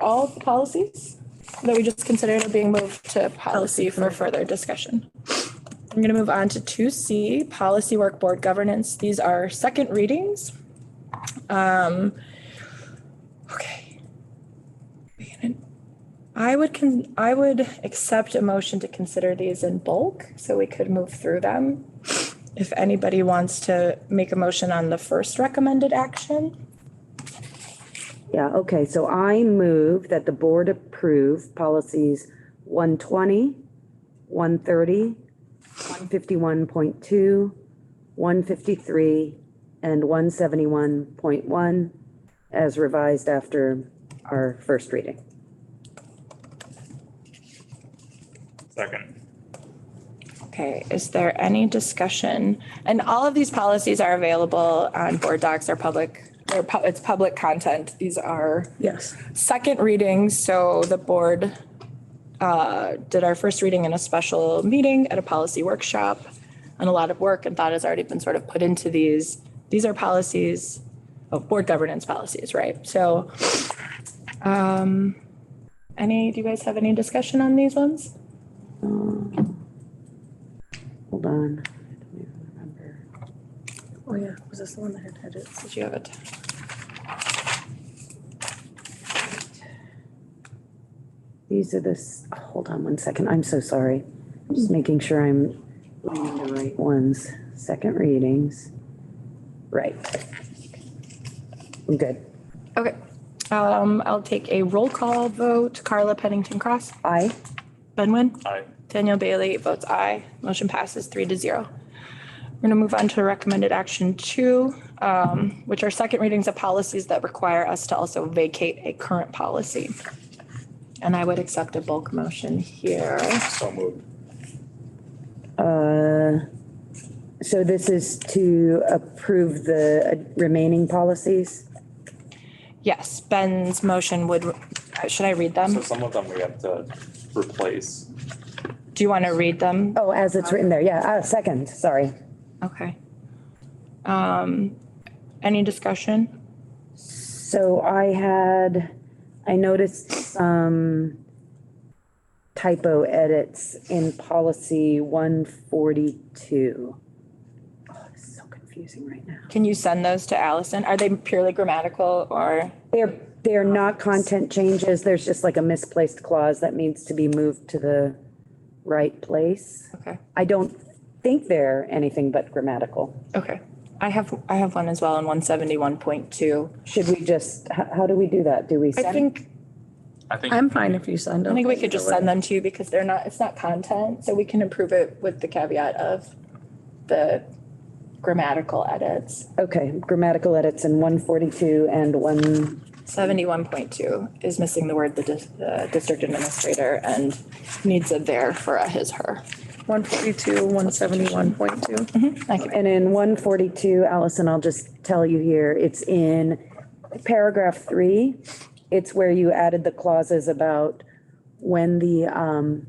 all the policies that we just considered are being moved to policy for further discussion. I'm going to move on to two C, policy work board governance. These are second readings. Um, okay. I would con, I would accept a motion to consider these in bulk, so we could move through them. If anybody wants to make a motion on the first recommended action. Yeah, okay, so I move that the board approve policies 120, 130, 151.2, 153, and 171.1 as revised after our first reading. Second. Okay, is there any discussion? And all of these policies are available on board docs or public, or pu- it's public content. These are Yes. second readings, so the board uh, did our first reading in a special meeting at a policy workshop. And a lot of work and thought has already been sort of put into these. These are policies, oh, board governance policies, right? So um, any, do you guys have any discussion on these ones? Hold on. I don't even remember. Oh, yeah. Was this the one that had edits? Did you have it? These are this, hold on one second, I'm so sorry. I'm Just making sure I'm reading the right ones. Second readings. Right. I'm good. Okay, um, I'll take a roll call vote. Carla Pennington Cross, Aye. Ben Wynn, Aye. Daniel Bailey votes aye. Motion passes three to zero. We're gonna move on to recommended action two, um, which are second readings of policies that require us to also vacate a current policy. And I would accept a bulk motion here. So moved. Uh, So this is to approve the uh, remaining policies? Yes, Ben's motion would, should I read So them? some of them we have to replace. Do you want to read them? Oh, as it's written there, yeah, uh, second, sorry. Okay. Um, any discussion? So I had, I noticed some typo edits in policy one forty-two. Oh, this is so confusing right now. Can you send those to Allison? Are they purely grammatical or, They're, they're not content changes, there's just like a misplaced clause that needs to be moved to the right place. okay, I don't think they're anything but grammatical. okay. I have, I have one as well in one seventy-one point two. Should we just, how, how do we do that? Do we? I send- think, I think. I'm fine if you send them. I think we could just send them to you because they're not, it's not content, so we can improve it with the caveat of the grammatical edits. Okay, grammatical edits in one forty-two and one Seventy-one point two is missing the word the dis- the district administrator and needs a there for a his, her. One forty-two, one seventy-one point two. I can- And in one forty-two, Allison, I'll just tell you here, it's in paragraph three. It's where you added the clauses about when the um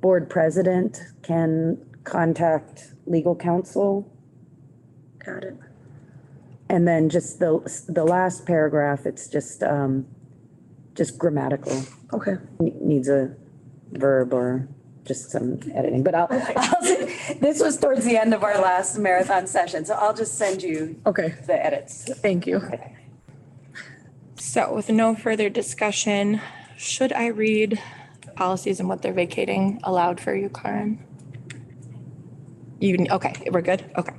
board president can contact legal counsel. Got it. And then just the the last paragraph, it's just um just grammatical, Okay. Ne- needs a verb or just some editing, but I'll, I'll s- This was towards the end of our last marathon session, so I'll just send you Okay. the edits. Thank you. So with no further discussion, should I read policies and what they're vacating aloud for you, Karen? You, okay, we're good? Okay.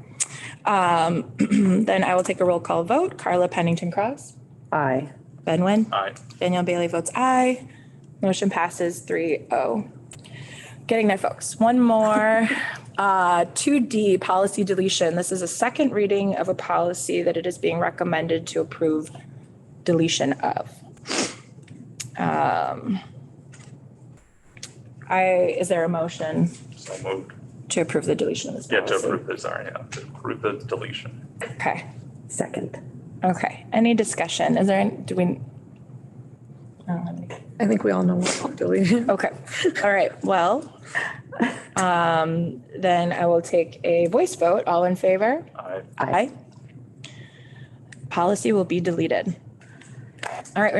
Um, Then I will take a roll call vote. Carla Pennington Cross, I, Ben Wen, Aye. Danielle Bailey votes aye. Motion passes 3-0. Getting there, folks. One more. Uh, 2D, policy deletion. This is a second reading of a policy that it is being recommended to approve deletion of. Um, I, is there a motion So moved. to approve the deletion of this Yeah, to policy? approve the, sorry, yeah, to approve the deletion. Okay, second. okay. Any discussion? Is there, any- do we? I don't have any. I think we all know what we're deleting. Okay, all right, well, um, then I will take a voice vote. All in favor? Aye. Aye. Policy will be deleted. All right,